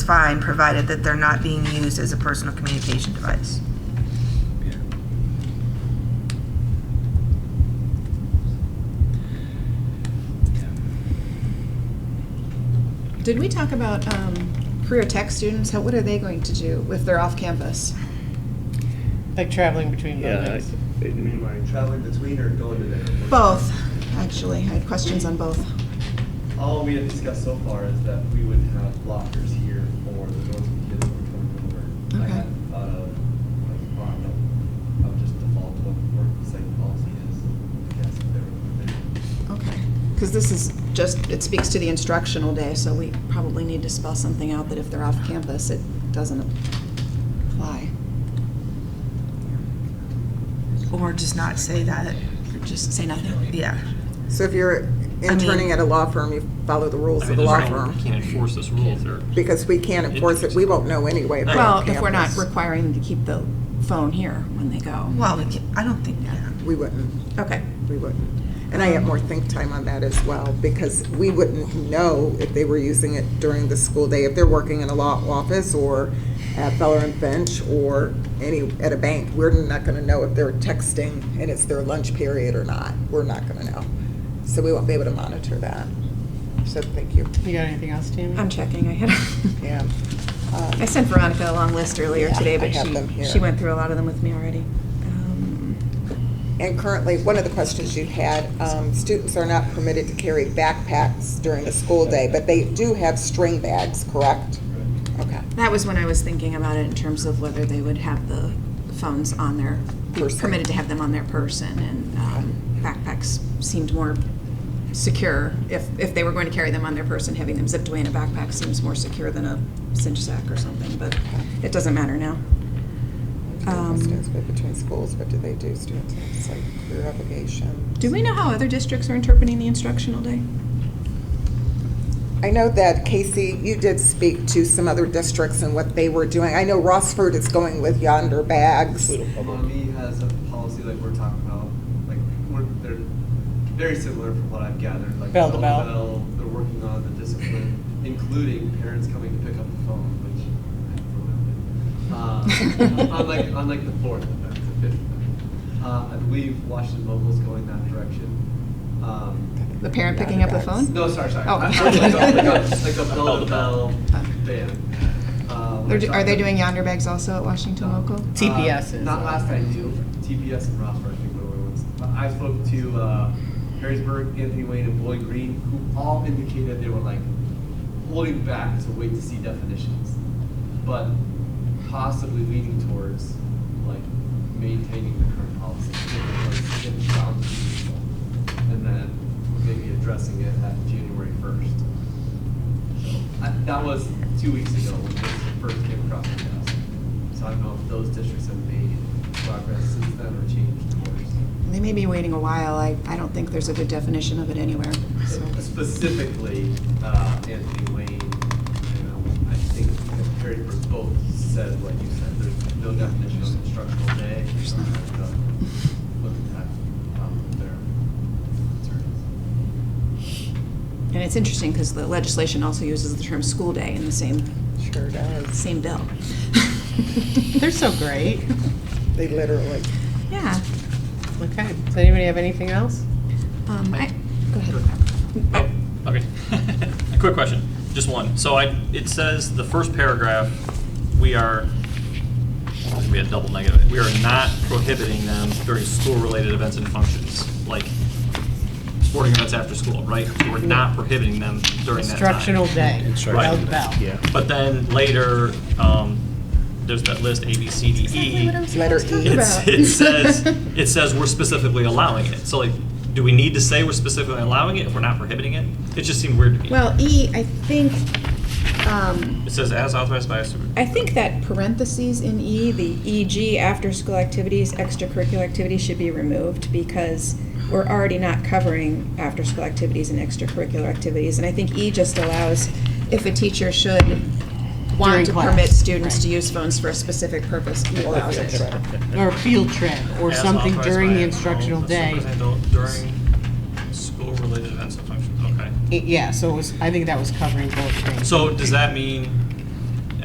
fine, provided that they're not being used as a personal communication device. Did we talk about um, career tech students? How, what are they going to do if they're off campus? Like traveling between Yeah, buildings. I- You mean by traveling between or going to there? Both, actually. I had questions on both. All we have discussed so far is that we would have lockers here for the ones with kids who are coming over. I Okay. hadn't thought of, like, well, I would just default to what work site policy is, I guess, if there were. Okay. Because this is just, it speaks to the instructional day, so we probably need to spell something out that if they're off campus, it doesn't apply. Or just not say that, Or Just say nothing. yeah. So if you're interning at a law firm, you follow the rules I of mean, the that's law right, firm, We can't enforce this rule if they're, because we can't enforce it, we won't know anyway. they're Well, on if we're not campus. requiring them to keep the phone here when they go. Well, we can, I don't think, yeah. We wouldn't, Okay. we wouldn't. And I have more think time on that as well, because we wouldn't know if they were using it during the school day, if they're working in a law office or at Feller and Finch or any, at a bank, we're not gonna know if they're texting and it's their lunch period or not, we're not gonna know. So we won't be able to monitor that. So thank you, You got anything else, Tammy? I'm checking. I had, yeah. Um, I sent Veronica a long list earlier Yeah, today, I but have them she, here. she went through a lot of them with me already. Um, And currently, one of the questions you had, um, students are not permitted to carry backpacks during the school day, but they do have string bags, correct? Okay. That was when I was thinking about it in terms of whether they would have the phones on their, be Person. permitted to have them on their person, and um, backpacks seemed more secure. If, if they were going to carry them on their person, having them zipped away in a backpack seems more secure than a cinch sack or something, but it doesn't matter now. Um, Students go between schools, but do they do students, have, it's like career obligation? Do we know how other districts are interpreting the instructional day? I know that, Casey, you did speak to some other districts and what they were doing. I know Rossford is going with yonder bags. Little public. Mommy has a policy like we're talking about, like, we're, they're very similar from what I've gathered, like. Bell to bell. They're working on the discipline, including parents coming to pick up the phone, which I have to remember. Uh, On like, on like the fourth, event, the fifth. event. Uh, I believe Washington Mobile's going that direction. Um, The parent picking up the phone? No, sorry, sorry. Oh. I- I was Like a- like a- like a bell to bell band. Uh, They're we're do- Are they talking- doing yonder bags also at Washington Local? TPS is, Um, Not uh, last I knew, TPS and Rossford, I think were the only ones. But I spoke to uh, Harrisburg, Anthony Wayne, and Boyd Green, who all indicated they were like holding back to wait to see definitions, but possibly leaning towards like maintaining the current policy. if it was- if it found to be useful, And then maybe addressing it at January first. That was two weeks ago when this first came across my desk. So I don't know if those districts have made progress since then or changed course. They may be waiting a while. I, I don't think there's a good definition of it anywhere, so. Specifically, uh, Anthony Wayne, you know, I think Harry both said what you said. There's no definition of instructional day. You don't have to Look at that, um, their concerns. And it's interesting because the legislation also uses the term school day in the same, Sure does. same bill. They're so great. They literally. Yeah. Okay, does anybody have anything else? Um, I, go ahead. oh, okay. A quick question, just one. So I, it says the first paragraph, we are, this would be a double negative. We are not prohibiting them during school-related events and functions, like sporting events after school, right? We're not prohibiting them during that time. Instructional day, bell to Right. bell. Yeah. But then later, um, there's that list, A, B, C, D, E. Letter E. It's, it says, it says we're specifically allowing it. So like, do we need to say we're specifically allowing it if we're not prohibiting it? It just seemed weird to me. Well, E, I think, um, It says as authorized by a super. I think that parentheses in E, the EG, after-school activities, extracurricular activities should be removed because we're already not covering after-school activities and extracurricular activities. And I think E just allows if a teacher should During want to class. permit students to use phones for a specific purpose, E allows it. Or a field trip, or as something authorized during by the a- instructional oh, day. superintendent During school-related events and functions, okay. It- Yeah, so it was, I think that was covering both things. So does that mean